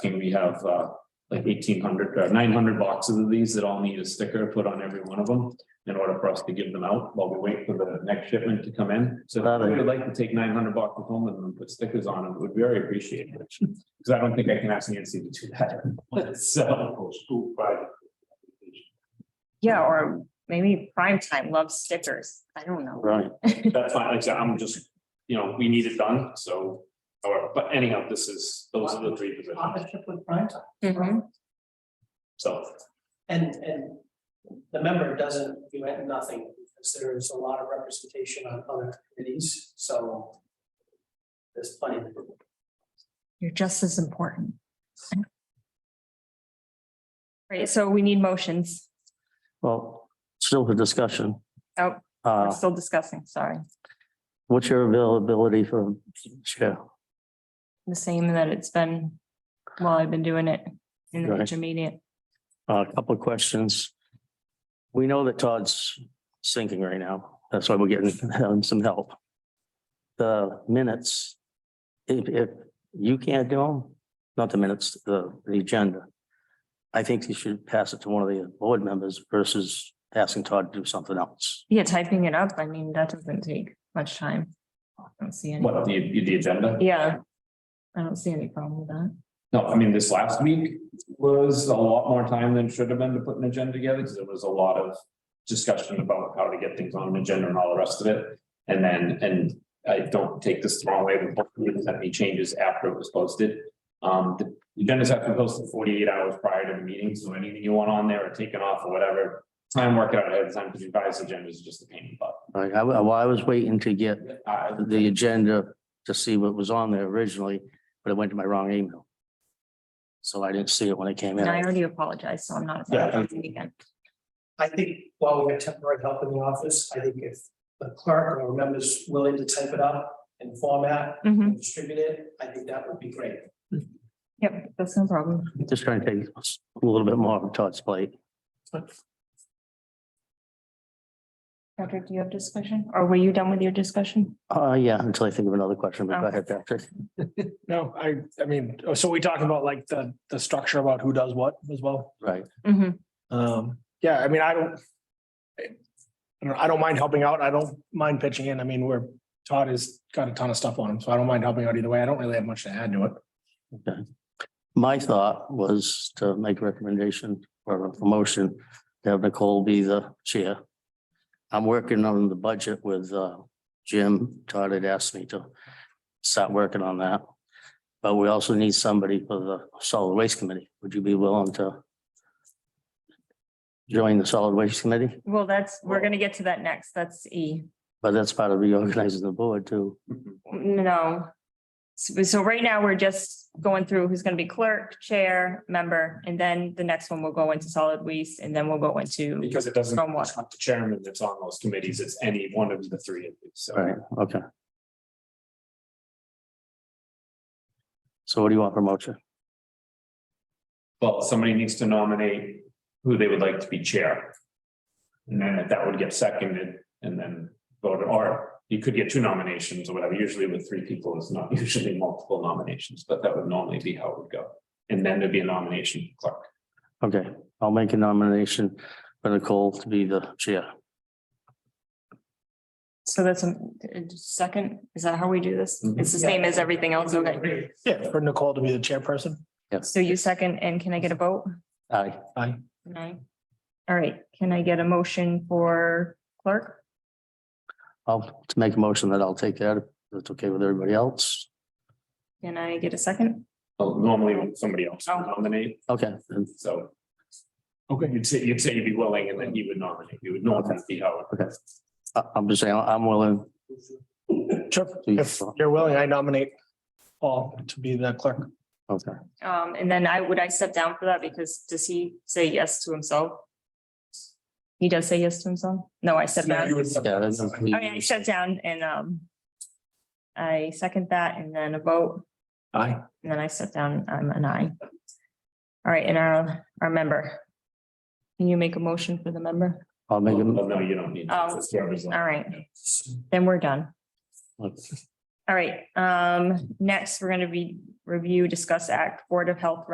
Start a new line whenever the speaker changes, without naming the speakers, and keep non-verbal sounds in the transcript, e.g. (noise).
And we have uh like eighteen hundred or nine hundred boxes of these that all need a sticker put on every one of them. In order for us to give them out while we wait for the next shipment to come in. So if we would like to take nine hundred boxes home and put stickers on them, it would be very appreciated. (laughs) Because I don't think I can ask Nancy to do that. (laughs) So.
School private.
Yeah, or maybe prime time loves stickers. I don't know.
Right. That's fine, like I said, I'm just, you know, we need it done, so. Or, but anyhow, this is, those are the three positions,
partnership with Prime Time.
Mhm.
so.
And, and the member doesn't, do nothing, because there's a lot of representation on other committees, so there's plenty. of
You're just as important. Right, so we need motions.
Well, still for discussion.
Oh. We're
Ah.
Uh,
still discussing, sorry.
what's your availability for chair?
The same that it's been while I've been doing it in the
Right.
intermediate.
A couple of questions. We know that Todd's sinking right now. That's why we're getting him some help. The minutes, if, if you can't do them, not the minutes, the, the agenda. I think you should pass it to one of the board members versus asking Todd to do something else.
Yeah, typing it up, I mean, that doesn't take much time. I don't see any,
What, the, the agenda?
yeah. I don't see any problem with that.
No, I mean, this last week was a lot more time than should have been to put an agenda together, because there was a lot of discussion about how to get things on an agenda and all the rest of it. And then, and I don't take this the wrong way, but we didn't have any changes after it was posted. Um, the agendas have to be posted forty-eight hours prior to the meeting, so anything you want on there or taken off or whatever, try and work it out ahead of time, because your guys' agenda is just a pain in the butt.
Like, I, wa- well, I was waiting to get
I-
the agenda to see what was on there originally, but it went to my wrong email. So I didn't see it when it came
And I
in.
already apologized, so I'm not.
Yeah.
apologizing again.
I think while we have temporary help in the office, I think if the clerk or members willing to type it up and format
Mhm.
and distribute it, I think that would be great.
Yep, that's no problem.
Just trying to take a little bit more of Todd's plate.
Patrick, do you have discussion? Or were you done with your discussion?
Uh, yeah, until I think of another question, but go ahead, Patrick.
No, I, I mean, so we talking about like the, the structure about who does what as well?
Right,
Mm-hmm.
Um, yeah, I mean, I don't. I I don't, I don't mind helping out. I don't mind pitching in. I mean, we're, Todd has got a ton of stuff on him, so I don't mind helping out either way. I don't really have much to add to it.
okay. My thought was to make a recommendation or a motion to have Nicole be the chair. I'm working on the budget with, uh, Jim. Todd had asked me to start working on that. But we also need somebody for the solid waste committee. Would you be willing to join the solid waste committee?
Well, that's, we're gonna get to that next. That's E.
But that's part of reorganizing the board too.
No. So, so right now, we're just going through who's gonna be clerk, chair, member, and then the next one will go into solid waste, and then we'll go into.
Because it doesn't,
Somewhat.
it's not the chairman that's on those committees, it's any one of the three of you, so.
Right, okay. So what do you want for motion?
Well, somebody needs to nominate who they would like to be chair. And then if that would get seconded and then voted, or you could get two nominations or whatever. Usually with three people, it's not (laughs) usually multiple nominations, but that would normally be how it would go. And then there'd be a nomination for clerk.
Okay, I'll make a nomination for Nicole to be the chair.
So that's a a second, is that how we do this?
Mhm.
It's the same as everything else, okay?
Yeah, for Nicole to be the chairperson.
So you second, and can I get a vote?
Aye.
Aye. All right, can I get a motion for clerk?
I'll to make a motion that I'll take that. if That's okay with everybody else.
Can I get a second?
Well, Normally when somebody else would
Oh.
nominate,
Okay, then,
so
Okay.
you'd say, you'd say you'd be willing and then he would nominate. You would normally be how. it-
I, I'm just saying, I'm willing.
Sure. If you're willing, I nominate Paul to be the clerk.
Okay,
Um, and then I, would I step down for that because does he say yes to himself? He does say yes to himself? No, I step down.
yeah. that's-
Oh, yeah, I shut down and, um, I second that and then a vote,
Aye.
and then I step down, I'm an aye. All right, and our, our member. Can you make a motion for the member?
I'll make
Well,
a,
No, you don't need.
Oh,
It's whoever's on.
All right, then we're done. All right, um, next, we're gonna be, review, discuss act, Board of Health